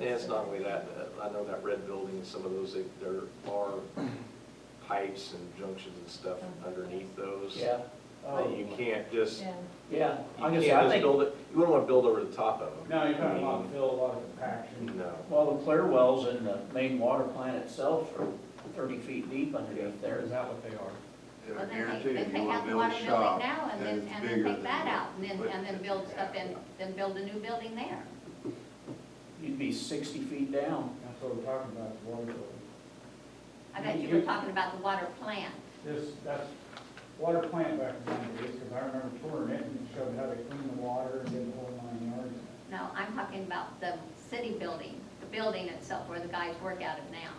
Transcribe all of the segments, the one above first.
And it's not only that, uh, I know that red building, some of those, they- there are pipes and junctions and stuff underneath those. Yeah. That you can't just, you Yeah. Yeah, I'm can't just, I just think, build it, you wouldn't want to build over the top of them. No, you're talking I about mean, fill, a lot of compaction. No. well, the clear wells in the main water plant itself are thirty feet deep underneath there. Is that what they are? Well, I then they- guarantee they if you take wanna out the build a water building shop Now, and that then, is and then bigger take than that out, and then, what- and then build stuff in, then build a new building there. You'd be sixty feet down. That's what we're talking about, the water building. I bet you You- were talking about the water plant. This, that's water plant back in the days, because I remember touring it and it showed how they clean the water and did the whole nine yards. No, I'm talking about the city building, the building itself where the guys work out of now.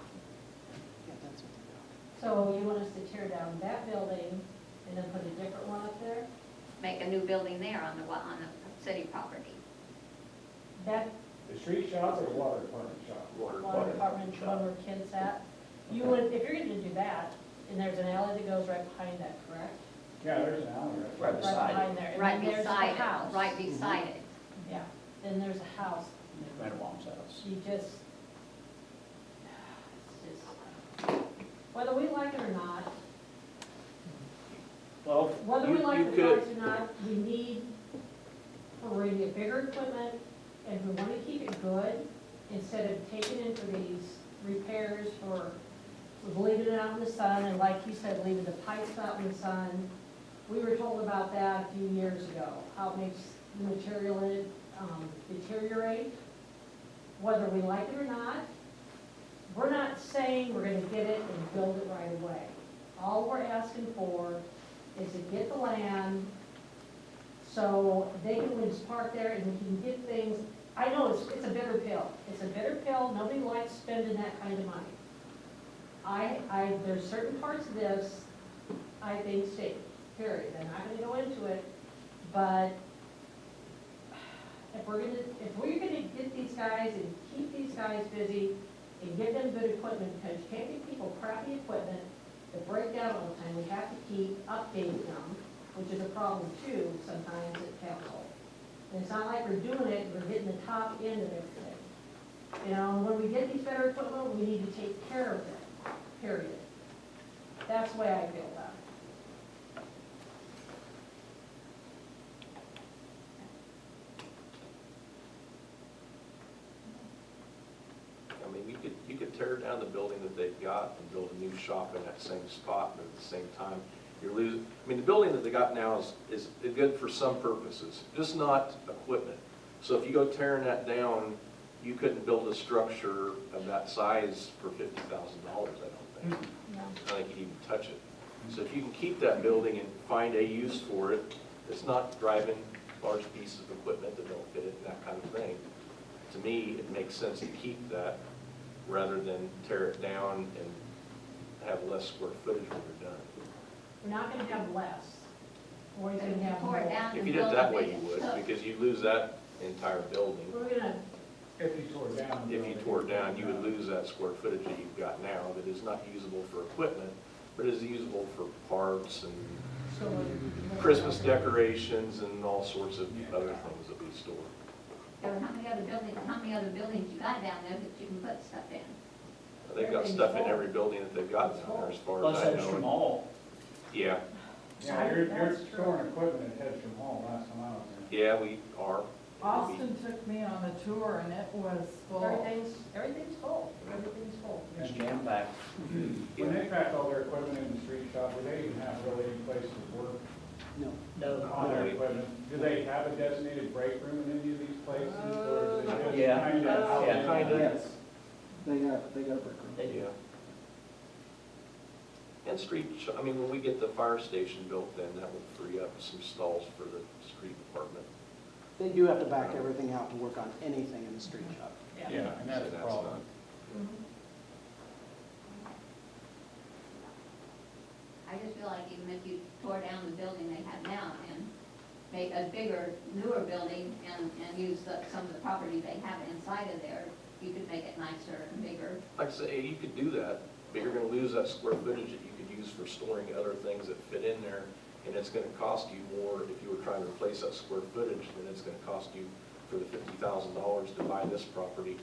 So you want us to tear down that building and then put a different one up there? Make a new building there on the, wa- on the city property. That The street shop or the water department shop? Water, water water. department, one where kids at, you would, if you're gonna do that, and there's an alley that goes right behind that, correct? Yeah, there's an alley right there. Right. Beside it. Right behind there, Right and then there's the beside house. Mm-hmm. it, right beside it. Yeah, then there's a house, Madewam's house. you just, it's just, whether we like it or not, Well, Whether we You- like you the could- price or not, we need for radio bigger equipment, and we wanna keep it good, instead of taking in for these repairs for, we're leaving it out in the sun, and like you said, leaving the pipes out in the sun. We were told about that a few years ago, how it makes the material in it um, deteriorate, whether we like it or not. We're not saying we're gonna get it and build it right away. All we're asking for is to get the land, so they can just park there and we can get things, I know it's, it's a bitter pill, it's a bitter pill, nobody likes spending that kind of money. I, I, there's certain parts of this, I think stink, period, and I'm gonna go into it, but if we're gonna, if we're gonna get these guys and keep these guys busy and give them good equipment, because you can't give people crappy equipment that break down all the time, we have to keep updating them, which is a problem too sometimes at council. And it's not like we're doing it, we're hitting the top end of everything. You know, when we get these better equipment, we need to take care of it, period. That's the way I feel about it. I mean, you could, you could tear down the building that they've got and build a new shop in that same spot, but at the same time, you're losing, I mean, the building that they got now is, is good for some purposes, just not equipment. So if you go tearing that down, you couldn't build a structure of that size for fifty thousand dollars, I don't think. I think you'd even touch it. So if you can keep that building and find a use for it, it's not driving large pieces of equipment that don't fit it and that kind of thing. To me, it makes sense to keep that rather than tear it down and have less square footage when you're done. We're not gonna have less, we're always gonna have Tore more. it down If and you did build it a that way, big- you would, because you lose that entire building. We're gonna, If you tore it down. If you tore it down, you would lose that square footage that you've got now that is not usable for equipment, but is usable for parts and so. we're- Christmas decorations and all sorts of other things that we store. Or How many other buildings, how many other buildings you got down there that you can put stuff in? They've got stuff in every building that they've got down there, as far as plus I Hedstrom know. Hall. Yeah, Yeah, you're, you're That's true. storing equipment at Hedstrom Hall last time I was there. yeah, we are. Austin took me on a tour and it was full. Everything's, everything's full, everythinging's full. It's jam packed. When they packed all their equipment in the street shop, do they even have really any place to work No, on their equipment? Do they have a designated break room in any of these places? or is it just Yeah. kind of out Yeah. in the- Kind of. They got, they got a break room. they Yeah. do. And street, sh- I mean, when we get the fire station built, then that will free up some stalls for the street department. They do have to back everything out to work on anything in the street shop. Yeah, and that's So the problem. I just feel like even if you tore down the building they have now and make a bigger, newer building and, and use the, some of the property they have inside of there, you could make it nicer and bigger. not- Like I say, you could do that, but you're gonna lose that square footage that you could use for storing other things that fit in there. And it's gonna cost you more if you were trying to replace that square footage than it's gonna cost you for the fifty thousand dollars to buy this property